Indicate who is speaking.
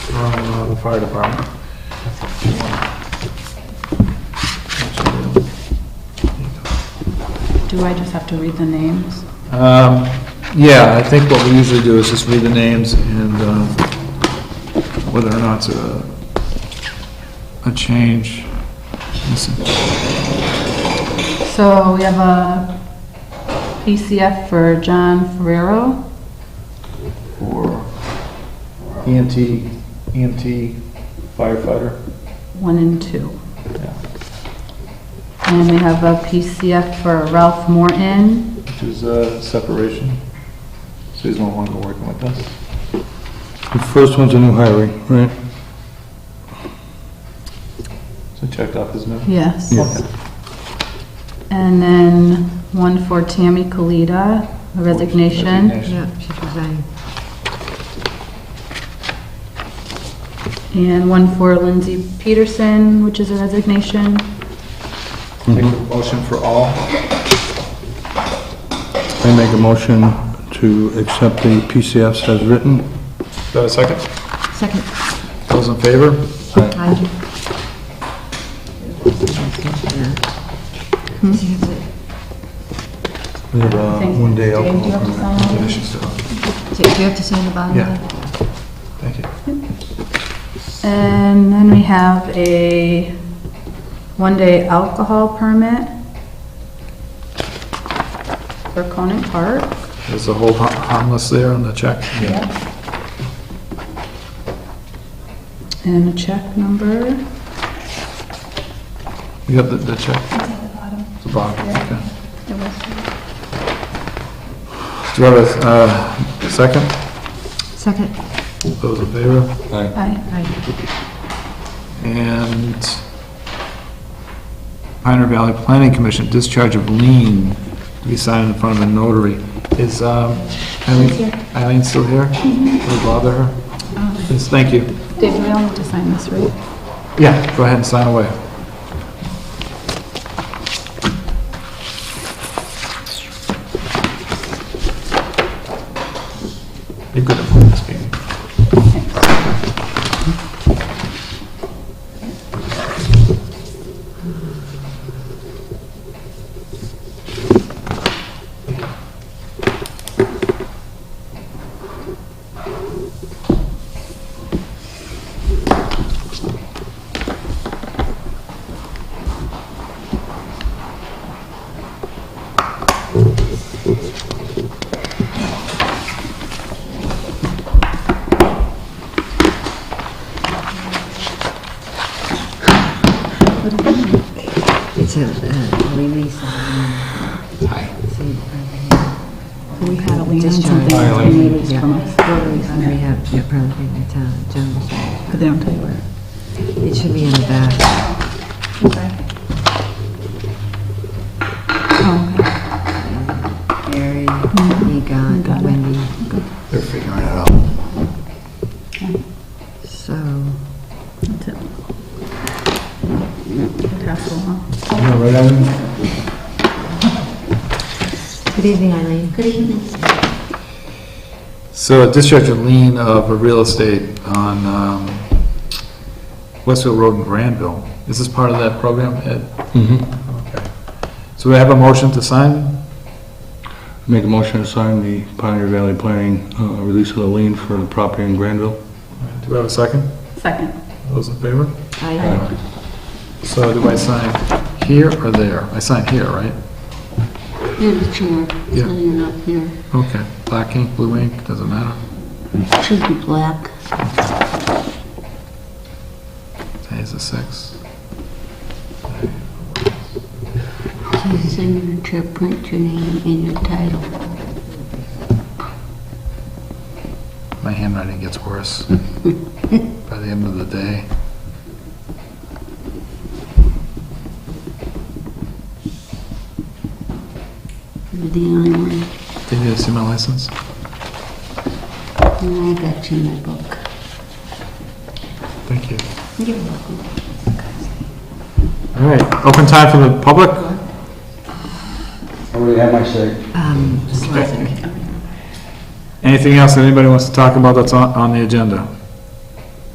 Speaker 1: from uh, the fire department.
Speaker 2: Do I just have to read the names?
Speaker 1: Um, Yeah, I think what we usually do is just read the names and um, whether or not it's a, a change. Listen,
Speaker 2: So we have a PCF for John Ferrero.
Speaker 1: Or E EMT, EMT E firefighter.
Speaker 2: one and two.
Speaker 1: Yeah.
Speaker 2: And we have a PCF for Ralph Morton.
Speaker 1: Which is uh, separation. So he's no longer working with us.
Speaker 3: The first one's a new hiring, right?
Speaker 1: So checked off his new.
Speaker 2: Yes.
Speaker 3: Yes.
Speaker 2: And then one for Tammy Colita, a resignation.
Speaker 1: Resignation.
Speaker 4: Yeah, she's resigning.
Speaker 2: And one for Lindsay Peterson, which is a resignation.
Speaker 1: Make a motion for all.
Speaker 3: I make a motion to accept the PCFs as written.
Speaker 1: Is that a second?
Speaker 4: Second.
Speaker 1: Those in favor?
Speaker 4: Aye.
Speaker 3: We have uh,
Speaker 2: Thank-
Speaker 3: one day
Speaker 2: Jane, do you
Speaker 3: alcohol
Speaker 2: have to
Speaker 3: permit.
Speaker 2: sign one?
Speaker 4: Do you have to sign the bottom
Speaker 1: Yeah.
Speaker 4: of that?
Speaker 1: Thank you.
Speaker 2: And then we have a one-day alcohol permit for Conant Park.
Speaker 1: There's a whole har- harmless there on the check.
Speaker 2: And a check number.
Speaker 1: You have the, the check? It's at the bottom. The bottom, okay. Do I have a, uh, second?
Speaker 4: Second.
Speaker 1: Those in favor?
Speaker 2: Aye.
Speaker 4: Aye.
Speaker 1: And Pioneer Valley Planning Commission, discharge of lien to be signed in front of a notary. Is, um, Eileen, Eileen still here? Would it bother her? Yes, thank you.
Speaker 2: Dave, we all need to sign this, right?
Speaker 1: Yeah, go ahead and sign away. You're good at playing this game.
Speaker 4: It's a uh, release.
Speaker 2: We had a lien on
Speaker 4: Discharge.
Speaker 2: something that they needed from us,
Speaker 4: And we have, you're probably in the town, Jones.
Speaker 2: but they don't tell you where.
Speaker 4: It should be in the back.
Speaker 2: Oh, okay.
Speaker 4: Mary, Egon,
Speaker 2: Got it.
Speaker 4: Wendy.
Speaker 1: They're figuring it out.
Speaker 4: So,
Speaker 2: That's it. Pass it along.
Speaker 1: right, Eileen?
Speaker 4: good evening, Eileen. Good evening.
Speaker 1: So a discharge of lien of a real estate on um, Westfield Road in Granville. Is this part of that program, Ed?
Speaker 3: Mhm.
Speaker 1: Okay. So we have a motion to sign?
Speaker 3: Make a motion to sign the Pioneer Valley Planning, uh, release of the lien for the property in Granville.
Speaker 1: Do we have a second?
Speaker 2: Second.
Speaker 1: Those in favor?
Speaker 4: Aye.
Speaker 1: So do I sign here or there? I sign here, right?
Speaker 5: In the chair,
Speaker 1: Yeah.
Speaker 5: so you're not here.
Speaker 1: Okay. Black ink, blue ink, doesn't matter.
Speaker 5: Should be black.
Speaker 1: Today's the sixth.
Speaker 5: So your signature, print your name and your title.
Speaker 1: My handwriting gets worse by the end of the day.
Speaker 5: You're the only one.
Speaker 1: Did you see my license?
Speaker 5: And I got you my book.
Speaker 1: Thank you.
Speaker 5: You're welcome.
Speaker 1: All right, open time for the public?
Speaker 6: I already have my say.
Speaker 4: Um, Slavic.
Speaker 1: Anything else that anybody wants to talk about that's on, on the agenda?